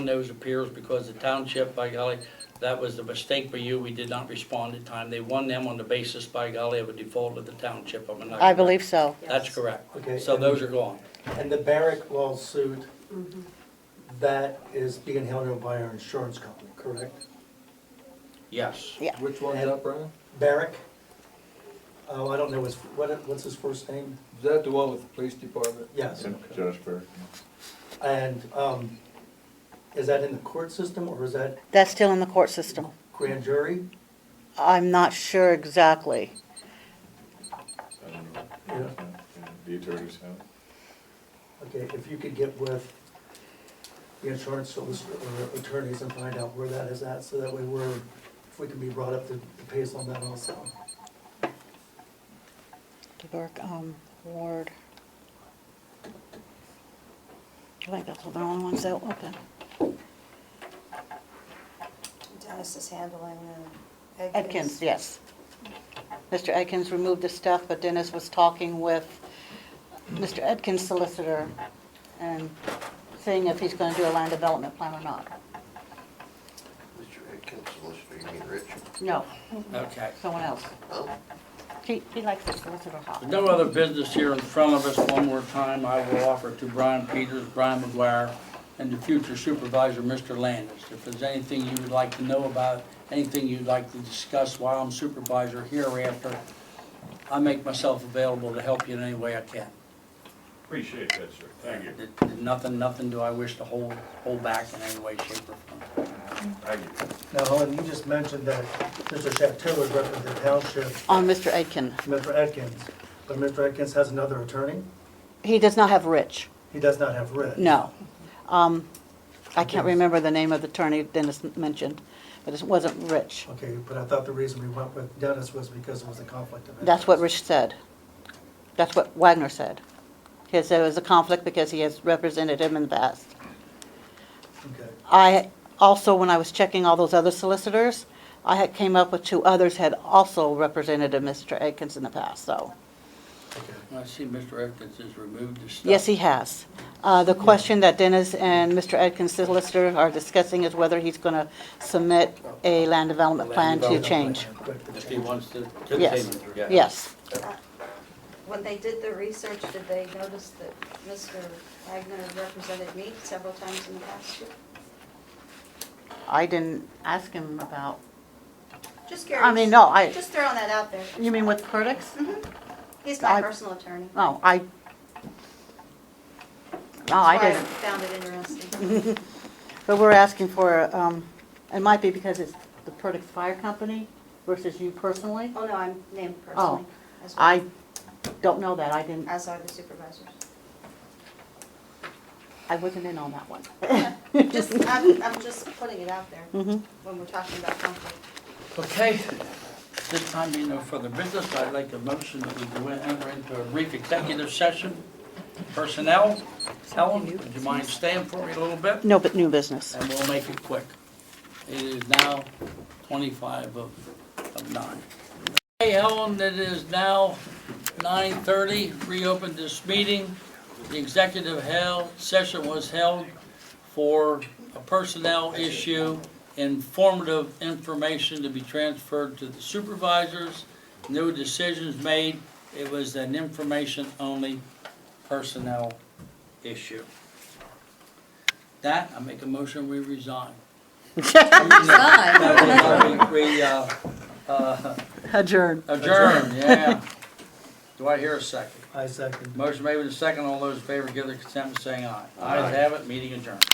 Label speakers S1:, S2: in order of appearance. S1: those appeals because the township, by golly, that was the mistake by you, we did not respond in time. They won them on the basis, by golly, of a default of the township, am I not
S2: I
S1: correct?
S2: believe so.
S1: That's correct.
S3: Okay.
S1: So those are gone.
S3: And the Barrick lawsuit, that is being held up by our insurance company, correct?
S1: Yes.
S4: Which one's that, Brian?
S3: Barrick? Oh, I don't know, his- what- what's his first name?
S4: Is that the one with the police department?
S3: Yes.
S5: Josh Berg.
S3: And um, is that in the court system or is that
S2: That's still in the court system.
S3: grand jury?
S2: I'm not sure exactly.
S5: I don't know.
S3: Yeah.
S5: The attorneys have. it.
S3: Okay, if you could get with the insurance solicitor or attorneys and find out where that is at, so that way we're, if we can be brought up to to pace on that also.
S2: DeBerk, um, Ward. I think that's the only ones that open.
S6: Dennis is handling the Edkins.
S2: Atkins, yes. Mr. Atkins removed the stuff, but Dennis was talking with Mr. Atkins' solicitor and seeing if he's gonna do a land development plan or not.
S7: Mr. Atkins, solicitor, you mean Rich?
S2: No,
S1: Okay.
S2: someone else.
S7: Oh,
S2: He, he likes his solicitor hot.
S1: There's no other business here in front of us. One more time, I will offer to Brian Peters, Brian McGuire, and the future supervisor, Mr. Landis. If there's anything you would like to know about, anything you'd like to discuss while I'm supervisor hereafter, I make myself available to help you in any way I can.
S8: Appreciate that, sir. Thank you.
S1: Nothing, nothing do I wish to hold, hold back in any way, shape, or form.
S8: Thank you.
S3: Now, Helen, you just mentioned that Mr. Chateau was representing the township,
S2: On Mr. Atkins.
S3: Mr. Atkins, but Mr. Atkins has another attorney?
S2: He does not have Rich.
S3: He does not have writ.
S2: No. Um, I can't remember the name of the attorney Dennis mentioned, but it wasn't Rich.
S3: Okay, but I thought the reason we went with Dennis was because it was a conflict of interest.
S2: That's what Rich said. That's what Wagner said. He said it was a conflict because he has represented him in the past.
S3: Okay,
S2: I, also, when I was checking all those other solicitors, I had came up with two others had also represented a Mr. Atkins in the past, so.
S3: okay.
S1: I see Mr. Atkins has removed his stuff.
S2: Yes, he has. Uh, The question that Dennis and Mr. Atkins' solicitor are discussing is whether he's going to submit a land development plan
S1: Land
S2: to
S1: development
S2: change.
S3: Quick to
S1: If he
S3: change.
S1: wants to continue.
S2: Yes. Yes.
S6: Uh, When they did the research, did they notice that Mr. Wagner represented me several times in the past year?
S2: I didn't ask him about,
S6: Just curious.
S2: I mean, no, I,
S6: Just throwing that out there. Mm-hmm.
S2: you mean with Perdix?
S6: He's my
S2: I- Oh,
S6: personal attorney.
S2: No, I, no, I
S6: That's why
S2: didn't. Mm-hmm.
S6: Found it interesting.
S2: But we're asking for, um, it might be because it's the Perdix Fire Company versus you personally.
S6: Oh, no, I'm named personally as well.
S2: I don't know that, I didn't,
S6: As are the supervisors.
S2: I wasn't in on that one.
S6: Just, I'm, I'm just putting it out there
S2: Mhm.
S6: when we're talking about conflict.
S1: Okay, this time being no further business, I'd like a motion that we go in- enter into a brief executive session. Personnel, Helen, would you mind staying for me a little bit?
S2: No, but new business.
S1: And we'll make it quick. It is now twenty-five of, of nine. Hey Helen, it is now nine thirty, reopened this meeting. The executive held, session was held for a personnel issue, informative information to be transferred to the supervisors, no decisions made. It was an information-only personnel issue. That, I make a motion, we resign. Resign? We, uh, uh,
S2: Adjourn.
S1: adjourn, yeah. Do I hear a second?
S3: I second.
S1: Motion made with a second, all those in favor give their consent by saying aye. Ayes have it, meeting adjourned.